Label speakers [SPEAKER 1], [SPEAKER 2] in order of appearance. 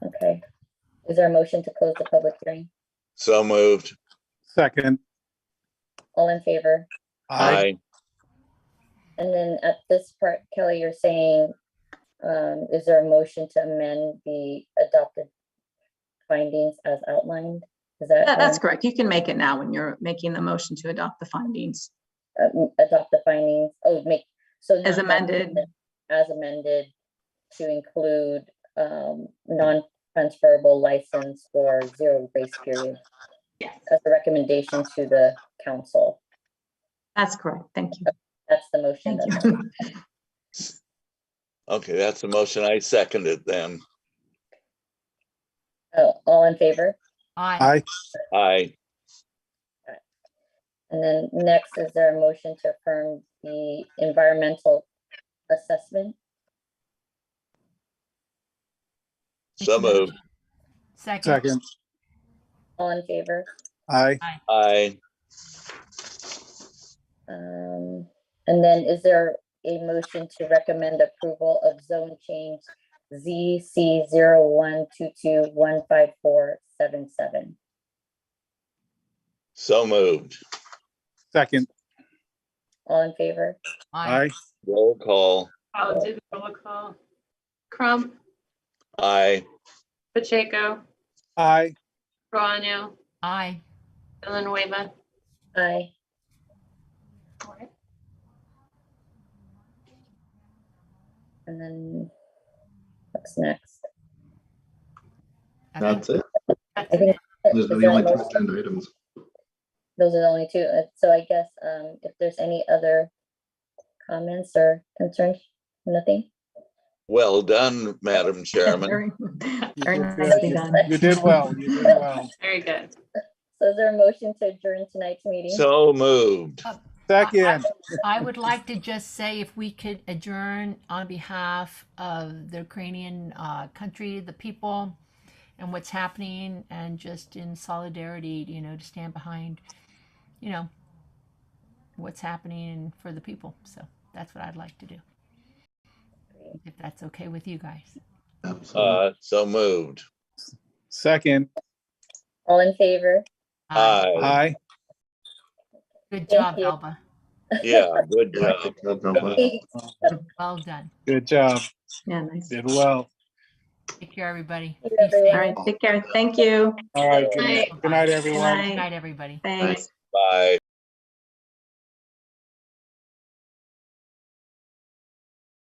[SPEAKER 1] Is there a motion to close the public hearing?
[SPEAKER 2] So moved.
[SPEAKER 3] Second.
[SPEAKER 1] All in favor?
[SPEAKER 2] Aye.
[SPEAKER 1] And then at this part, Kelly, you're saying, um, is there a motion to amend the adopted findings as outlined? Is that?
[SPEAKER 4] That- That's
[SPEAKER 1] um,
[SPEAKER 4] correct. You can make it now when you're making the motion to adopt the findings.
[SPEAKER 1] um, Adopt the findings, oh, make, so.
[SPEAKER 4] As
[SPEAKER 1] not-
[SPEAKER 4] amended.
[SPEAKER 1] As amended to include, um, non-transferable license or zero grace period
[SPEAKER 4] Yes.
[SPEAKER 1] as a recommendation to the council.
[SPEAKER 4] That's correct. Thank you.
[SPEAKER 1] That's the motion.
[SPEAKER 4] Thank
[SPEAKER 1] that's-
[SPEAKER 4] you.
[SPEAKER 2] Okay, that's the motion. I seconded then.
[SPEAKER 1] Oh, all in favor?
[SPEAKER 5] Aye.
[SPEAKER 3] Aye.
[SPEAKER 2] Aye.
[SPEAKER 1] And then next, is there a motion to affirm the environmental assessment?
[SPEAKER 2] So moved.
[SPEAKER 5] Second.
[SPEAKER 3] Second.
[SPEAKER 1] All in favor?
[SPEAKER 3] Aye.
[SPEAKER 2] Aye.
[SPEAKER 1] Um, and then is there a motion to recommend approval of zone change ZC zero one two two one five four seven seven?
[SPEAKER 2] So moved.
[SPEAKER 3] Second.
[SPEAKER 1] All in favor?
[SPEAKER 3] Aye.
[SPEAKER 2] Roll call.
[SPEAKER 6] I'll do the roll call. Crump,
[SPEAKER 2] Aye.
[SPEAKER 6] Pacheco,
[SPEAKER 3] Aye.
[SPEAKER 6] Carano,
[SPEAKER 5] Aye.
[SPEAKER 6] Villanueva.
[SPEAKER 1] Aye. And then what's next?
[SPEAKER 5] I think-
[SPEAKER 7] That's it.
[SPEAKER 1] I think.
[SPEAKER 7] Those are
[SPEAKER 1] is
[SPEAKER 7] the
[SPEAKER 1] there a
[SPEAKER 7] only two
[SPEAKER 1] motion?
[SPEAKER 7] agenda items.
[SPEAKER 1] Those are the only two. Uh, So I guess um, if there's any other comments or concerns, nothing?
[SPEAKER 2] Well done, Madam Chairman.
[SPEAKER 4] Very very
[SPEAKER 3] did
[SPEAKER 4] nicely
[SPEAKER 1] good.
[SPEAKER 4] done.
[SPEAKER 3] You did well. You did well.
[SPEAKER 6] Very good.
[SPEAKER 1] So is there a motion to adjourn tonight's meeting?
[SPEAKER 2] So moved.
[SPEAKER 3] Second.
[SPEAKER 5] I would like to just say if we could adjourn on behalf of the Ukrainian uh, country, the people, and what's happening, and just in solidarity, you know, to stand behind, you know, what's happening for the people. So that's what I'd like to do. If that's okay with you guys.
[SPEAKER 7] Absolutely.
[SPEAKER 2] Uh, so moved.
[SPEAKER 3] Second.
[SPEAKER 1] All in favor?
[SPEAKER 5] Uh,
[SPEAKER 2] Aye.
[SPEAKER 3] Aye.
[SPEAKER 5] Good
[SPEAKER 1] Thank
[SPEAKER 5] job,
[SPEAKER 1] you.
[SPEAKER 5] Alba.
[SPEAKER 2] Yeah, good
[SPEAKER 7] Yeah,
[SPEAKER 2] job.
[SPEAKER 7] good job, Grandpa.
[SPEAKER 5] Well done.
[SPEAKER 3] Good job.
[SPEAKER 4] Yeah, nice.
[SPEAKER 3] Did well.
[SPEAKER 5] Take care, everybody.
[SPEAKER 1] Thank you,
[SPEAKER 5] Be safe.
[SPEAKER 4] All
[SPEAKER 1] everyone.
[SPEAKER 4] right, take care. Thank you.
[SPEAKER 3] All right. Good
[SPEAKER 6] Aye.
[SPEAKER 3] night. Good night, everyone.
[SPEAKER 5] Good night, everybody.
[SPEAKER 4] Thanks.
[SPEAKER 2] Bye.